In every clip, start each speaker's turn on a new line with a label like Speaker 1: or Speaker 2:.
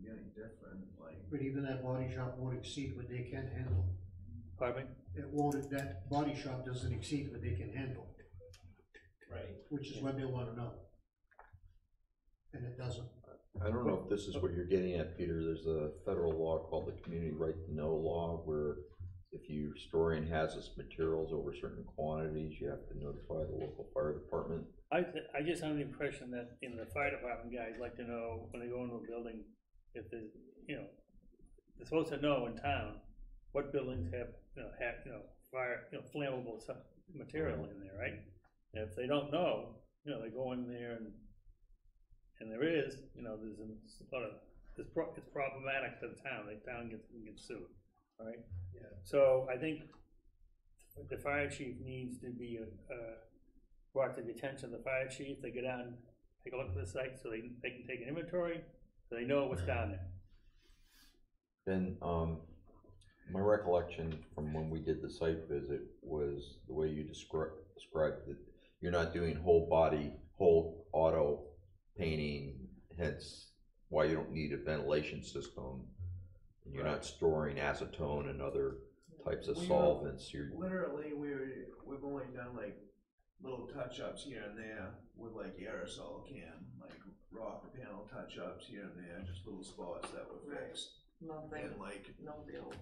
Speaker 1: different, like,
Speaker 2: But even that body shop won't exceed what they can handle.
Speaker 3: Pardon me?
Speaker 2: It won't, that body shop doesn't exceed what they can handle,
Speaker 1: right?
Speaker 2: which is what they wanna know. And it doesn't.
Speaker 4: I don't know if this is what you're getting at, Peter, there's a federal law called the Community Right to Know Law, where if your store hazardous materials over certain quantities, you have to notify the local fire department.
Speaker 3: I, th- I just have the impression that in the fire department, guys like to know when they go into a building, if there's, you know, they're supposed to know in town what buildings have, you know, have, you know, fire, you know, flammable stuff, material in there, right? And if they don't know, you know, they go in there and, and there is, you know, there's a lot of, it's pro, it's problematic to the town, the town gets, gets sued, all right?
Speaker 1: Yeah.
Speaker 3: So I think the fire chief needs to be, uh, brought to the attention of the fire chief, they go down, and take a look at the site, so they, they can take an inventory, so they know
Speaker 4: Mm.
Speaker 3: what's down there.
Speaker 4: Then, um, my recollection from when we did the site visit was the way you descri- described that you're not doing whole body, whole auto painting, hence why you don't need a ventilation system. You're not storing acetone and other types of
Speaker 1: We are-
Speaker 4: solvents, you're,
Speaker 1: Literally, we were, we've only done like little touch-ups here and there with like aerosol can, like rock panel touch-ups here and there, just little spots that were fixed.
Speaker 5: nothing,
Speaker 1: And like,
Speaker 5: no real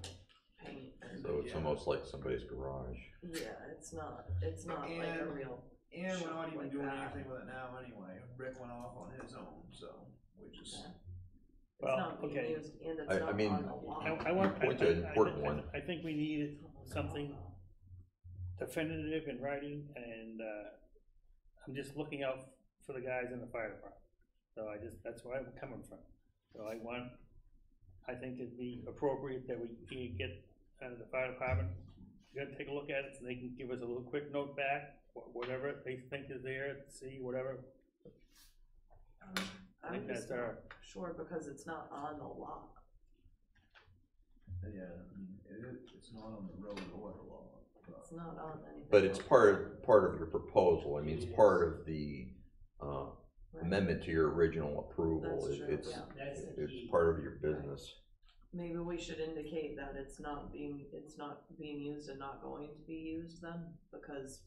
Speaker 5: paint. and-
Speaker 4: so it's
Speaker 1: Yeah.
Speaker 4: almost like somebody's garage.
Speaker 5: Yeah, it's not, it's not like a
Speaker 1: And-
Speaker 5: real,
Speaker 1: and we're not even
Speaker 5: Like
Speaker 1: doing
Speaker 5: that.
Speaker 1: anything with it now anyway, Rick went off on his own, so we just.
Speaker 5: it's
Speaker 3: Well,
Speaker 5: not being
Speaker 3: okay.
Speaker 5: used and it's
Speaker 4: I- I
Speaker 5: not on
Speaker 4: mean,
Speaker 5: the lawn.
Speaker 3: I, I want. I
Speaker 4: Point to an
Speaker 3: think- I
Speaker 4: important
Speaker 3: think-
Speaker 4: one.
Speaker 3: I think we need something definitive in writing, and, uh, I'm just looking out for the guys in the fire department. So I just, that's where I'm coming from. So I want, I think it'd be appropriate that we can get, uh, the fire department, go take a look at it, so they can give us a little quick note back, wh- whatever they think is there, see, whatever, I
Speaker 5: I'm
Speaker 3: think
Speaker 5: just
Speaker 3: that's our,
Speaker 5: not sure because it's not on the lot.
Speaker 1: Yeah, I mean, it, is- it's not on the road or the law, but.
Speaker 5: It's not on anything.
Speaker 4: But it's part of, part of your proposal, I mean, it's part of the, uh,
Speaker 5: Right.
Speaker 4: amendment to your original approval,
Speaker 5: That's
Speaker 4: It-
Speaker 5: true,
Speaker 4: it's,
Speaker 5: yeah.
Speaker 6: That's the key.
Speaker 4: it's part of your business.
Speaker 5: Maybe we should indicate that it's not being, it's not being used and not going to be used then, because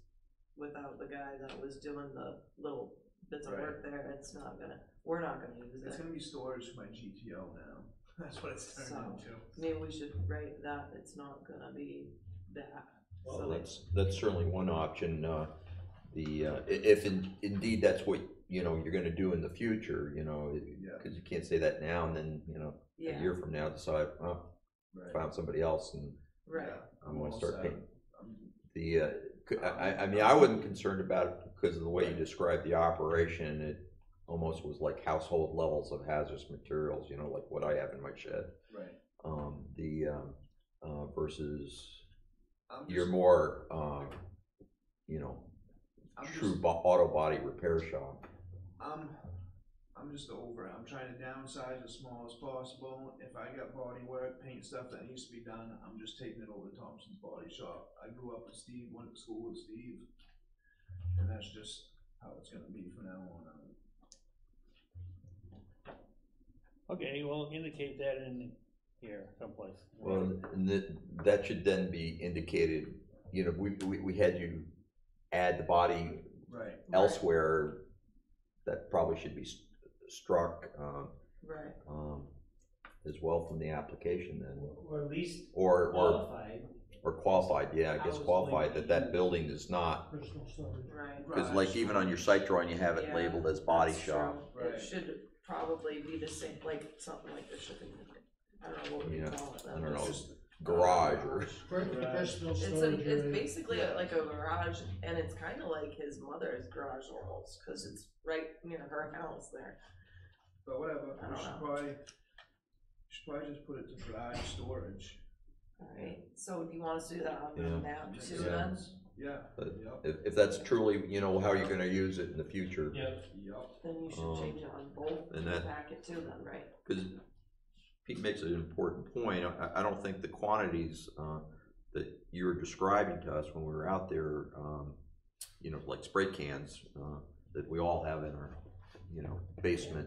Speaker 5: without the guy that was doing the little bits of work there, it's not gonna, we're not gonna use
Speaker 1: It's
Speaker 5: it.
Speaker 1: gonna be storage for my GTO now. That's what it's turned
Speaker 5: So-
Speaker 1: into.
Speaker 5: Maybe we should write that it's not gonna be that.
Speaker 4: So
Speaker 5: So
Speaker 4: that's, that's certainly one option, uh, the, uh, i- if in- indeed that's what, you know, you're gonna do in the future, you know, it-
Speaker 1: Yeah.
Speaker 4: cause you can't say that now and then, you know, a
Speaker 5: Yeah,
Speaker 4: year from now decide, oh,
Speaker 1: Right.
Speaker 4: found somebody else and
Speaker 5: right.
Speaker 1: Yeah,
Speaker 4: I'm gonna
Speaker 1: Well
Speaker 4: start
Speaker 1: said.
Speaker 4: painting.
Speaker 1: I'm-
Speaker 4: The, uh, c- I, I- I mean, I wasn't concerned about it because of the way you described the operation, it almost was like household levels of hazardous materials, you know, like what I have in my shed.
Speaker 1: Right.
Speaker 4: Um, the, um, uh, versus
Speaker 1: I'm
Speaker 4: you're
Speaker 1: just-
Speaker 4: more, um, you know,
Speaker 1: I'm just-
Speaker 4: true bo- auto body repair shop.
Speaker 1: I'm, I'm just over it. I'm trying to downsize as small as possible. If I got body work, paint stuff that needs to be done, I'm just taking it over to Thompson's Body Shop. I grew up with Steve, went to school with Steve, and that's just how it's gonna be from now on. out.
Speaker 3: okay, well, indicate that in here someplace.
Speaker 4: Well, and that, that should then be indicated, you know, we, we, we had you add the body
Speaker 1: Right.
Speaker 4: elsewhere, that probably should be s- struck, um,
Speaker 5: Right,
Speaker 4: um, as well from the application then.
Speaker 6: Or at least
Speaker 4: Or, or,
Speaker 6: qualified.
Speaker 4: or qualified, yeah, I guess qualified that that building is not,
Speaker 2: Personal storage.
Speaker 5: right.
Speaker 4: cause like even on your site drawing, you have it
Speaker 5: Yeah,
Speaker 4: labeled as body
Speaker 5: that's
Speaker 4: shop.
Speaker 5: true.
Speaker 1: Right.
Speaker 5: It should probably be the same, like, something like the shipping, I don't know what we
Speaker 4: Yeah,
Speaker 5: call it.
Speaker 4: I
Speaker 5: then.
Speaker 4: don't know,
Speaker 1: Just-
Speaker 4: garage or
Speaker 2: Personal
Speaker 5: It's a,
Speaker 2: storage
Speaker 5: it's
Speaker 2: area.
Speaker 5: basically like a garage, and it's kinda like his mother's garage almost, cause it's right near her house there.
Speaker 1: But whatever,
Speaker 5: I
Speaker 1: we
Speaker 5: don't
Speaker 1: should
Speaker 5: know.
Speaker 1: probably, should probably just put it to garage storage.
Speaker 5: Alright, so do you want us to do that on the
Speaker 4: Yeah.
Speaker 5: map
Speaker 1: Makes
Speaker 5: too
Speaker 1: sense.
Speaker 5: then?
Speaker 1: Yeah,
Speaker 4: But-
Speaker 1: yep,
Speaker 4: If, if that's truly, you know, how you're gonna use it in the future.
Speaker 6: Yep.
Speaker 1: yep.
Speaker 5: Then you
Speaker 4: Um,
Speaker 5: should change it on both
Speaker 4: and that-
Speaker 5: packet too then, right?
Speaker 4: Because Pete makes an important point, I, I don't think the quantities, uh, that you were describing to us when we were out there, um, you know, like spray cans, uh, that we all have in our, you know, basement,